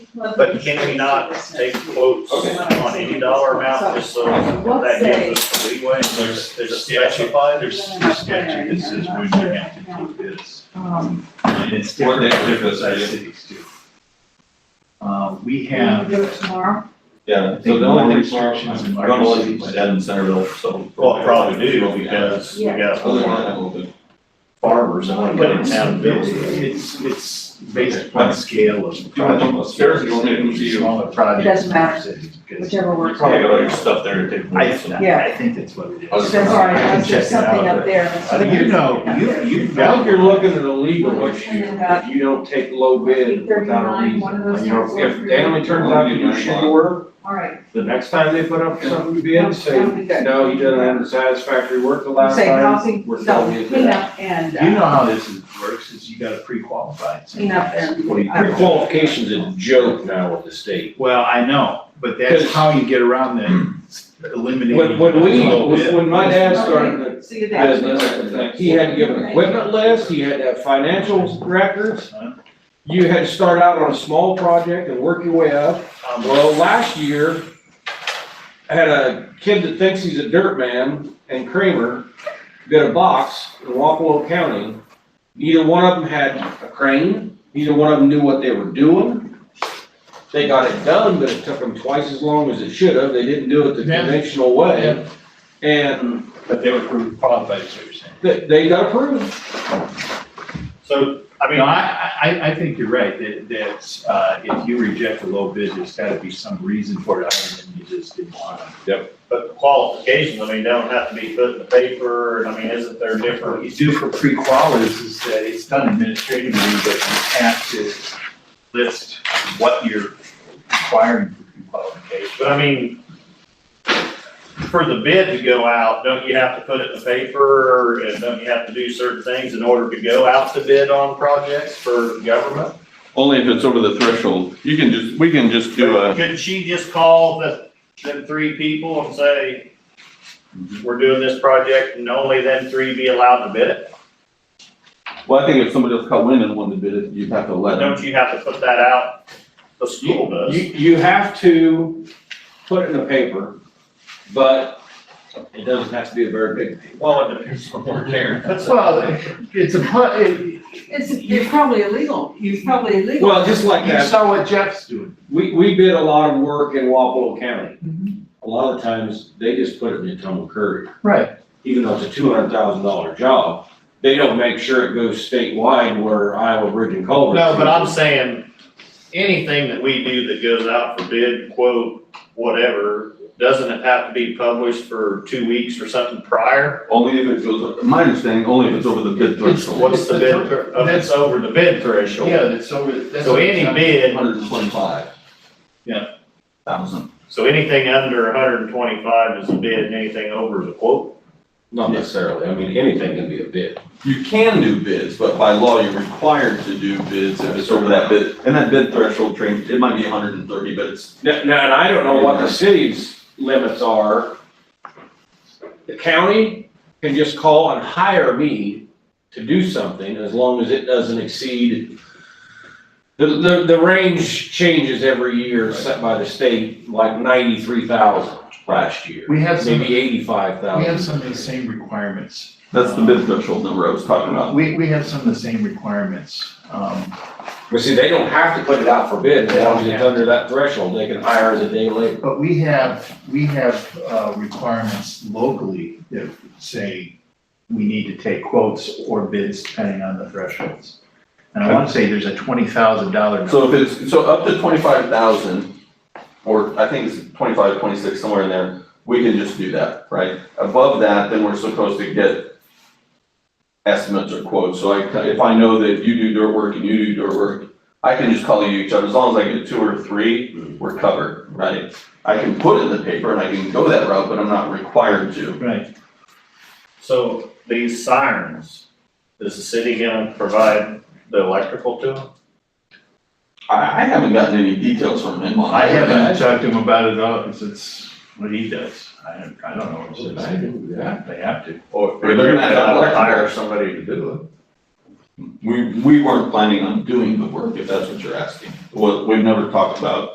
But can we not take quotes Okay. on any dollar amount, just so that gives us the leeway, There's, there's, there's there's specified, specified? there's a statute that says when you have to do this. Um, And it's What different that for difference other is? cities too. Uh, we can we have, do it tomorrow? Yeah, I so think the more only thing tomorrow, restrictions I'm in gonna larger let you cities. set in Centerville, so. Well, probably do, because we got Other than that, we'll do. farmers that wanna But get in it's, town bills. it's, it's based upon scale of. you want them upstairs or you want me to come to you? Smaller projects. It doesn't matter. cities, because- Whichever You works. probably got all your stuff there to take. I, notes and- Yeah. I think that's what it is. I was That's all right, I I was can check just it out, something but up there. I think you know, you, you Now value if you're looking at illegal, if you, if you don't take low bid without a reason, you know, if Danley turns out to do shit work, All right, the next time they put up something to bid, say, no, you didn't have the satisfactory work the last say time, housing, we're no, telling you clean that. up and, You know uh, how this is- works, is you gotta pre-qualify. clean up and. What do you- uh, Qualification's a joke now with the state. Well, I know, but that's how you get around the eliminating. When, when we, low bid. when my dad started the uh, See you there. business, he had to give an equipment list, he had to have financial records, you had to start out on a small project and work your way up. Um, well, Well, last year, I had a kid that thinks he's a dirt man and Kramer did a box in Wapello County. Neither one of them had a crane, neither one of them knew what they were doing. They got it done, but it took them twice as long as it should have. They didn't do it the Yeah. conventional way. And But they were pre-qualified, is what you're saying. they, they got approved. So, I mean, No, I, I, I- I think you're right, that, that, uh, if you reject a low bid, there's gotta be some reason for it, other than you just didn't want it. but the qualifications, I mean, they don't have to be put in the paper, and I mean, isn't there What different? you do for pre-qual is, is that it's done administratively, but you have to list what you're requiring for pre-qualification. But I mean, for the bid to go out, don't you have to put it in the paper, and don't you have to do certain things in order to go out to bid on projects for government? Only if it's over the threshold. You can just, we can just do uh, a, Couldn't she just call the, them three people and say, we're doing this project, and only them three be allowed to bid it? well, I think if somebody else called in and wanted to bid it, you'd have to let them. Don't you have to put that out? The You, school does. you have to put it in the paper, but it doesn't have to be a very big paper. Well, it depends on where they're. Well, it's a, pu- it- It's, it's probably illegal, it's probably illegal. Well, just like you that. saw what Jeff's doing. We, we bid a lot of work in Wapello County. Mhm. A lot of times, they just put it in the Tumble Courier, Right. even though it's a two hundred thousand dollar job. They don't make sure it goes statewide where Iowa Bridge and Culver. No, but I'm saying, anything that we do that goes out for bid, quote, whatever, doesn't it have to be published for two weeks or something prior? Only if it goes, my understanding, only if it's over the bid threshold. What's the bid, thr- if it's over the bid threshold? Yeah, that's over, that's. So any bid, Hundred and twenty-five. Yeah. Thousand. so anything under hundred and twenty-five is a bid, and anything over is a quote? Not necessarily, I mean, anything can be a bid. You can do bids, but by law, you're required to do bids if it's over that bid. And that bid threshold range, it might be hundred and thirty, but it's, Now, now, and I don't know what the city's limits are. The county can just call and hire me to do something as long as it doesn't exceed. The, the, the range changes every year set by the state, like ninety-three thousand last year, We have some, maybe we eighty-five thousand. have some of the same requirements. that's the bid threshold number I was talking about. We, we have some of the same requirements. Um, But see, they don't have to put it out for bid, as long as it's under that threshold, they can hire as a day laborer. But we have, we have uh, requirements locally that say we need to take quotes or bids depending on the thresholds. And I want to say there's a twenty thousand dollar. So if it's, so up to twenty-five thousand, or I think it's 25, 26 somewhere in there, we can just do that, right? Above that, then we're supposed to get estimates or quotes, so I, if I know that you do dirt work and you do dirt work, I can just call you each other, as long as I get two or three, we're covered, right? I can put it in the paper and I can go that route, but I'm not required to. Right, So these sirens, is the city gonna provide the electrical to them? I, I haven't gotten any details from him on I haven't that. talked to him about it all, because it's what he does, I don't, I don't know what it is. I didn't do that. They have to, Or they're gonna have to hire somebody to do it. We, we weren't planning on doing the work, if that's what you're asking. Well, we've never talked about